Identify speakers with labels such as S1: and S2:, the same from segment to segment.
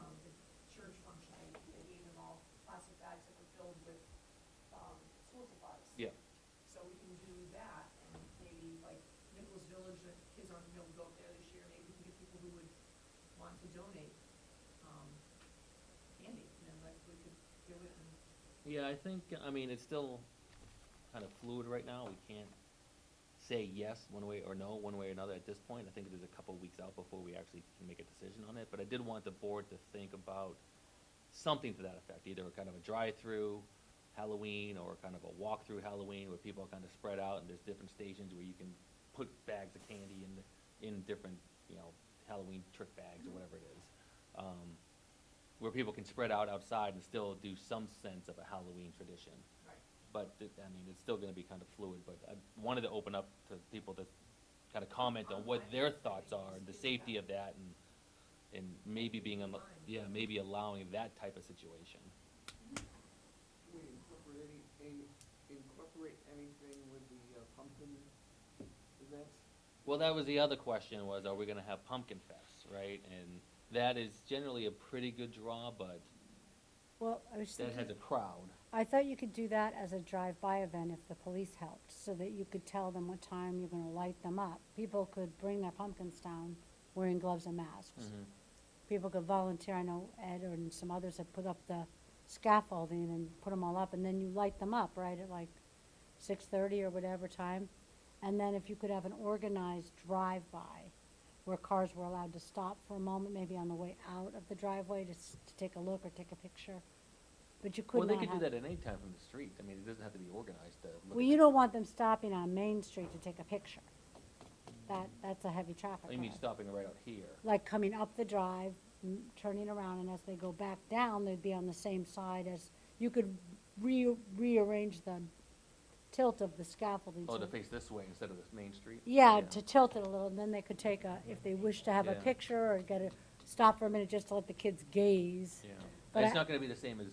S1: um, um, school supplies.
S2: Yeah.
S1: So we can do that, maybe like Nichols Village, that kids aren't gonna be able to go up there this year, maybe we can get people who would want to donate, um, candy, and then like we could do it and
S2: Yeah, I think, I mean, it's still kind of fluid right now, we can't say yes one way or no, one way or another at this point. I think it is a couple weeks out before we actually can make a decision on it, but I did want the board to think about something to that effect, either kind of a drive-through Halloween or kind of a walk-through Halloween where people are kind of spread out and there's different stations where you can put bags of candy in, the- in different, you know, Halloween trick bags or whatever it is. Um, where people can spread out outside and still do some sense of a Halloween tradition.
S1: Right.
S2: But, th- I mean, it's still gonna be kind of fluid, but I wanted to open up to people to kind of comment on what their thoughts are, and the safety of that, and, and maybe being, unlo- yeah, maybe allowing that type of situation.
S3: Can we incorporate any, any- incorporate anything with the uh, pumpkin event?
S2: Well, that was the other question, was are we gonna have Pumpkin Fest, right? And that is generally a pretty good draw, but
S4: Well, I was
S2: that has a
S4: thinking,
S2: crowd.
S4: I thought you could do that as a drive-by event if the police helped, so that you could tell them what time you're gonna light them up. People could bring their pumpkins down wearing gloves and
S2: Mm-hmm.
S4: masks. People could volunteer, I know Ed and some others have put up the scaffolding and put them all up, and then you light them up, right, at like six-thirty or whatever time. And then if you could have an organized drive-by, where cars were allowed to stop for a moment, maybe on the way out of the driveway to, s- to take a look or take a picture. But you could
S2: Well,
S4: not
S2: they
S4: have.
S2: could do that at any time from the street, I mean, it doesn't have to be organized to look at
S4: Well, you
S2: the-
S4: don't want them stopping on Main Street to take a picture. That, that's a heavy traffic
S2: I mean,
S4: cause.
S2: stopping right out here.
S4: Like coming up the drive, m- turning around, and as they go back down, they'd be on the same side as, you could re- rearrange the tilt of the scaffolding.
S2: Oh,
S4: so-
S2: to face this way instead of the main street?
S4: Yeah, to tilt it a little, and then they could take a, if they wish to have a
S2: Yeah.
S4: picture or get a, stop for a minute just to let the kids gaze.
S2: Yeah.
S4: But
S2: It's
S4: I-
S2: not gonna be the same as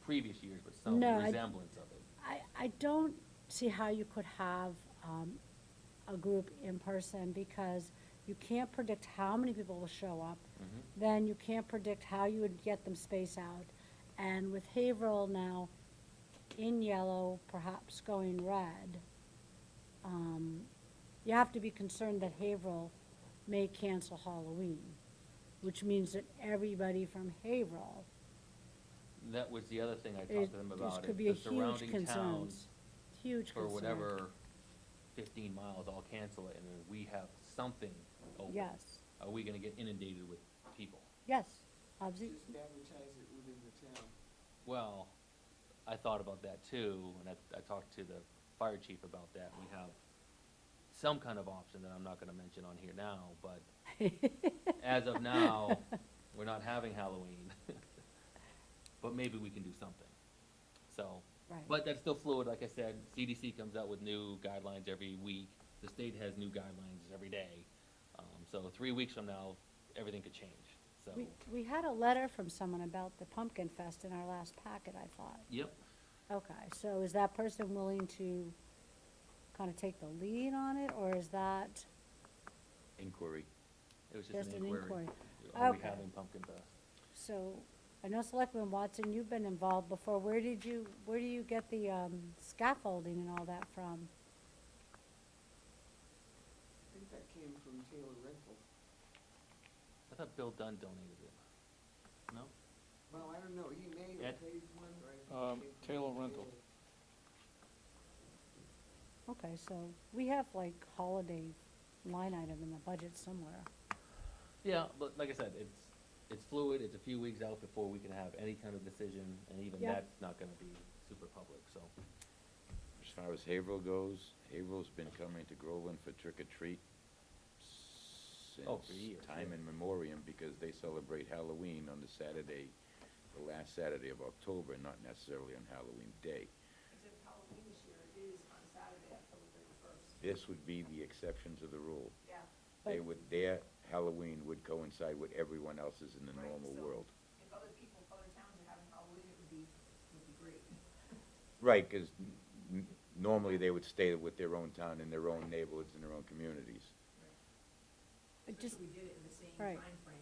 S2: previous years, but some
S4: No, I-
S2: resemblance of it.
S4: I, I don't see how you could have, um, a group in person because you can't predict how many people will show up. Then you can't predict how you would get them spaced out. And with Haverhill now in yellow, perhaps going red, um, you have to be concerned that Haverhill may cancel Halloween, which means that everybody from Haverhill
S2: That was the other thing I
S4: it,
S2: talked to them
S4: this
S2: about,
S4: could
S2: is
S4: be a
S2: the
S4: huge
S2: surrounding
S4: concern.
S2: towns
S4: Huge
S2: for
S4: concern.
S2: whatever fifteen miles, all cancel it, and then we have something open.
S4: Yes,
S2: Are we gonna get inundated with people?
S4: yes, obvi-
S3: Just advertise it within the town.
S2: Well, I thought about that too, and I, I talked to the fire chief about that, we have some kind of option that I'm not gonna mention on here now, but as of now, we're not having Halloween, but maybe we can do something. So,
S4: right.
S2: but that's still fluid, like I said, CDC comes out with new guidelines every week, the state has new guidelines every day. Um, so three weeks from now, everything could change, so,
S4: We, we had a letter from someone about the Pumpkin Fest in our last packet, I thought.
S2: yep,
S4: Okay, so is that person willing to kind of take the lead on it, or is that
S5: inquiry.
S2: it was just
S4: just
S2: an
S4: an
S2: inquiry.
S4: inquiry?
S2: Are we
S4: Okay.
S2: having pumpkin fest?
S4: So, I know Selectman Watson, you've been involved before, where did you, where do you get the, um, scaffolding and all that from?
S3: I think that came from Taylor Rental.
S2: I thought Bill Dunn donated it. No?
S3: Well, I don't know, he may
S2: Ed?
S3: have paid one, or I think it
S6: Um,
S3: came from
S6: Taylor Rental.
S4: Okay, so, we have like holiday line item in the budget somewhere.
S2: Yeah, but like I said, it's, it's fluid, it's a few weeks out before we can have any kind of decision, and even
S4: Yeah.
S2: that's not gonna be super public, so.
S5: As far as Haverhill goes, Haverhill's been coming to Groveland for trick or treat
S2: Oh, for
S5: since
S2: years,
S5: time
S2: yeah.
S5: in memoriam, because they celebrate Halloween on the Saturday, the last Saturday of October, not necessarily on Halloween Day.
S1: Except Halloween this year is on Saturday, October thirty-first.
S5: This would be the exception to the rule.
S1: Yeah,
S5: They
S4: But-
S5: would, their Halloween would coincide with everyone else's in the
S1: Right,
S5: normal
S1: so-
S5: world.
S1: if other people, other towns are having Halloween, it would be, would be great.
S5: Right, because normally they would stay with their own town and their own neighborhoods and their own communities.
S4: I
S1: Especially
S4: just,
S1: we did it in the same
S4: Right.
S1: timeframe